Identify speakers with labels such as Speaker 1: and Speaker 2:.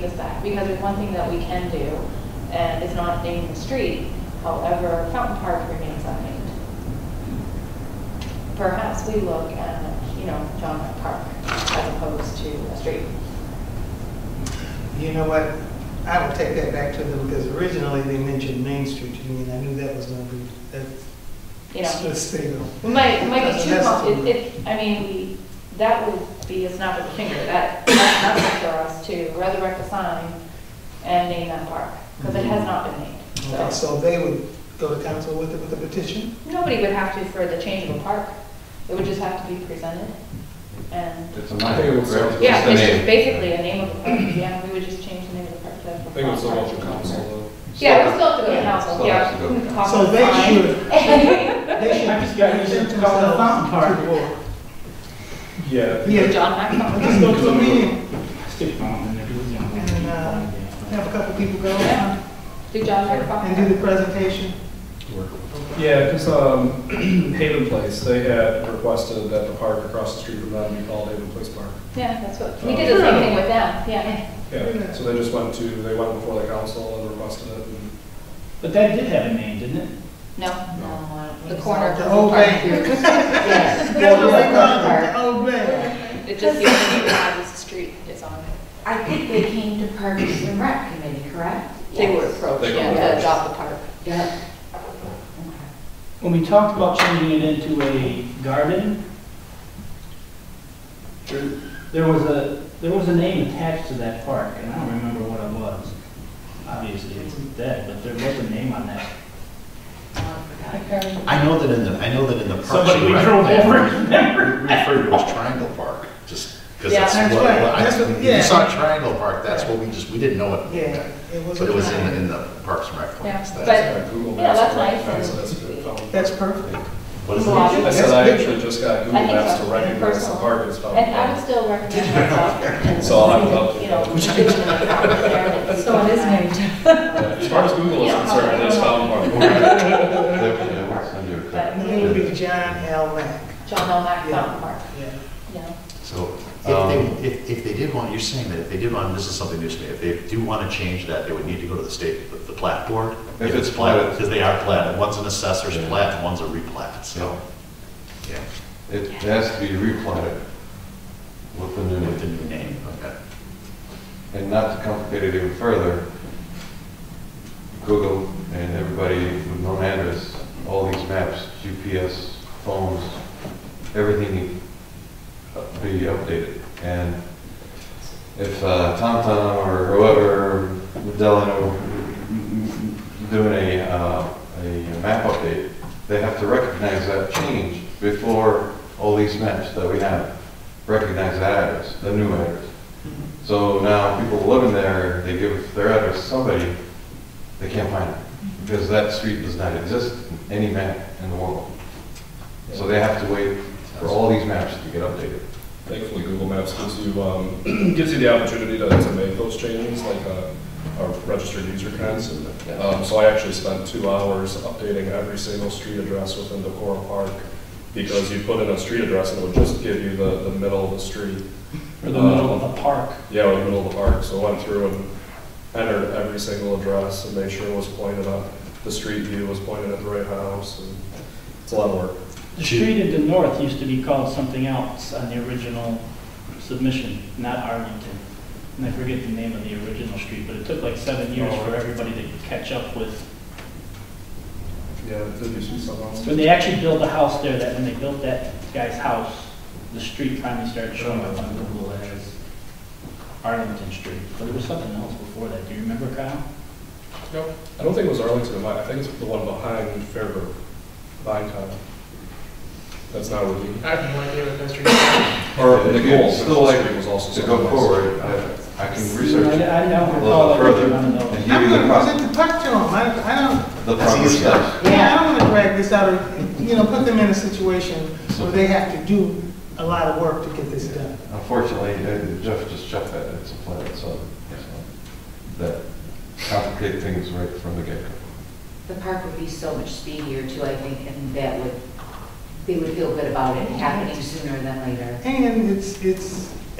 Speaker 1: because there's one thing that we can do, and it's not naming the street, however, Fountain Park remains unnamed. Perhaps we look at, you know, John F. Park as opposed to a street.
Speaker 2: You know what? I will take that back to them because originally they mentioned Main Street to me and I knew that was going to be, that's
Speaker 1: You know,
Speaker 2: that's fatal.
Speaker 1: we might, we might be too,
Speaker 2: That's-
Speaker 1: com- it, it, I mean, we- that would be a snap of the finger, that, that's nothing for us to resurrect a sign and name that park, because it has not been
Speaker 2: Okay,
Speaker 1: named, so.
Speaker 2: so they would go to council with it, with a petition?
Speaker 1: Nobody would have to for the change of a park, it would just have to be presented, and,
Speaker 3: It's a
Speaker 4: I think it
Speaker 3: name,
Speaker 4: was-
Speaker 3: correct?
Speaker 1: yeah,
Speaker 3: the
Speaker 1: it's just
Speaker 3: name.
Speaker 1: basically a name of the park, yeah, we would just change the name of the park to.
Speaker 4: I think it was so
Speaker 1: Fountain
Speaker 4: much
Speaker 1: Park.
Speaker 4: of council
Speaker 1: Yeah, we still have to go to
Speaker 3: Yeah,
Speaker 1: council,
Speaker 3: still
Speaker 1: yeah.
Speaker 3: has to go to
Speaker 1: we can call
Speaker 2: So
Speaker 1: it
Speaker 2: they
Speaker 1: fine.
Speaker 2: should, they should.
Speaker 5: I just got- you said
Speaker 2: present
Speaker 5: call it a
Speaker 2: themselves
Speaker 5: fountain
Speaker 2: to the board.
Speaker 4: though. Yeah.
Speaker 2: Yeah,
Speaker 1: John Maxwell.
Speaker 2: let's go to a meeting,
Speaker 5: Stick fountain in there, do it on
Speaker 2: And, uh,
Speaker 5: the-
Speaker 2: have a couple people go
Speaker 1: Yeah. Do John
Speaker 2: and do
Speaker 1: Maxwell.
Speaker 2: the presentation.
Speaker 4: Yeah, because um, Haven Place, they had requested that the park across the street from them be called Haven Place Park.
Speaker 1: Yeah, that's what, we did the
Speaker 2: Oh.
Speaker 1: same thing with them, yeah.
Speaker 4: Yeah, so they just went to, they went before the council and requested it. and-
Speaker 5: But that did have a name, didn't it?
Speaker 1: No,
Speaker 2: No.
Speaker 1: the corner.
Speaker 2: The old bank.
Speaker 6: Yes.
Speaker 2: That's what they
Speaker 6: Fountain
Speaker 2: call it,
Speaker 6: Park.
Speaker 2: the old bank.
Speaker 1: It just, the only one is the street is on it.
Speaker 6: I think they came to Parks and Rec Committee, correct?
Speaker 1: They were
Speaker 6: Yes.
Speaker 1: approached,
Speaker 4: They were
Speaker 1: yeah, to
Speaker 4: approached.
Speaker 1: adopt the park.
Speaker 6: Yep.
Speaker 5: When we talked about changing it into a garden, there- there was a, there was a name attached to that park, and I don't remember what it was. Obviously, it's dead, but there was a name on that.
Speaker 7: I know that in the, I know that in the parks.
Speaker 5: Somebody
Speaker 7: and
Speaker 5: we
Speaker 7: Rec,
Speaker 5: drove
Speaker 7: they
Speaker 5: over.
Speaker 7: Referred to as Triangle Park, just because
Speaker 1: Yeah,
Speaker 7: that's
Speaker 2: that's
Speaker 7: what,
Speaker 2: right.
Speaker 7: what I-
Speaker 2: That's what-
Speaker 7: when
Speaker 2: yeah.
Speaker 7: you saw Triangle Park, that's what we just, we didn't know it.
Speaker 2: Yeah, it was.
Speaker 7: But
Speaker 2: a
Speaker 7: it was in, the-
Speaker 2: triangle.
Speaker 7: in the Parks and Rec plans.
Speaker 1: Yeah,
Speaker 7: That's-
Speaker 4: I Googled
Speaker 1: yeah,
Speaker 4: Maps
Speaker 1: that's
Speaker 4: to
Speaker 1: nice.
Speaker 4: recognize it as a good phone.
Speaker 2: That's perfect.
Speaker 7: What is
Speaker 1: Well,
Speaker 7: it?
Speaker 4: I said I actually just got Google
Speaker 1: I think
Speaker 4: Maps
Speaker 1: so.
Speaker 4: to recognize the
Speaker 1: Personal.
Speaker 4: park as
Speaker 1: And I would
Speaker 4: fountain.
Speaker 1: still recommend myself.
Speaker 4: So I'll have it up.
Speaker 1: You know, visioning the park there.
Speaker 6: So it is named.
Speaker 4: As far as Google is
Speaker 1: Yeah.
Speaker 4: concerned, it is fountain park.
Speaker 3: Yeah, we'll send you a copy.
Speaker 2: And it would be John L. Mack.
Speaker 1: John O'Mac
Speaker 2: Yeah.
Speaker 1: Fountain Park,
Speaker 2: Yeah.
Speaker 1: you know.
Speaker 7: So
Speaker 3: Um,
Speaker 7: if they, if, if they did want, you're saying that if they did want, this is something new to me, if they do want to change that, they would need to go to the state, the- the plat board.
Speaker 3: If it's platted.
Speaker 7: Because they are platted. One's an assessor's
Speaker 3: Yeah.
Speaker 7: plat and one's a replat, so. Yeah.
Speaker 3: It has to be replanted with the new
Speaker 7: With the
Speaker 3: name.
Speaker 7: new name, okay.
Speaker 3: And not to complicate it even further, Google and everybody with known address, all these maps, GPS, phones, everything need to be updated. And if uh, TomTom or whoever, Delano, doing a, uh, a map update, they have to recognize that change before all these maps that we have recognize that address, the new address. So now people living there, they give their address to somebody, they can't find it. Because that street does not exist in any map in the world. So they have to wait for all these maps to get updated.
Speaker 4: Thankfully, Google Maps gives you, um, gives you the opportunity to, to make those changes, like, uh, our registered user accounts. Um, so I actually spent two hours updating every single street address within Decorum Park, because you put in a street address and it would just give you the, the middle of the street,
Speaker 5: Or the middle of the park.
Speaker 4: yeah, or the middle of the park, so I went through and entered every single address and made sure it was pointed up, the street view was pointed at the right house, and it's a lot of work.
Speaker 5: The street at the north used to be called something else on the original submission, not Arlington. And I forget the name of the original street, but it took like seven years for everybody to catch up with.
Speaker 4: Yeah, did you see something else?
Speaker 5: When they actually built the house there, that when they built that guy's house, the street finally started showing up on Google as Arlington Street. But there was something else before that. Do you remember, Kyle?
Speaker 4: No, I don't think it was Arlington, I think it's the one behind Fairbrook, behind Tyler. That's not Ruby.
Speaker 2: I have no idea what those are.
Speaker 4: Or
Speaker 3: If
Speaker 4: the
Speaker 3: you'd
Speaker 4: goal,
Speaker 3: still like
Speaker 4: was also
Speaker 3: To go
Speaker 4: something else.
Speaker 3: forward, I I can research
Speaker 5: I-
Speaker 3: it
Speaker 5: I don't
Speaker 3: a
Speaker 5: recall
Speaker 3: little
Speaker 5: ever
Speaker 3: further
Speaker 5: one of those.
Speaker 3: and give
Speaker 2: I'm
Speaker 3: you the
Speaker 2: gonna
Speaker 3: proper,
Speaker 2: present the puck to them, I, I don't,
Speaker 3: the
Speaker 7: That's
Speaker 3: proper
Speaker 7: easy.
Speaker 3: steps.
Speaker 2: yeah, I don't wanna drag this out, or, you know, put them in a situation where they have to do a lot of work to get this done.
Speaker 3: Unfortunately, uh, Jeff just checked that, it's a plat, so, so that complicate things right from the get-go.
Speaker 6: The park would be so much speedier too, I think, and that would, they would feel good about it happening sooner than later.
Speaker 2: And it's, it's,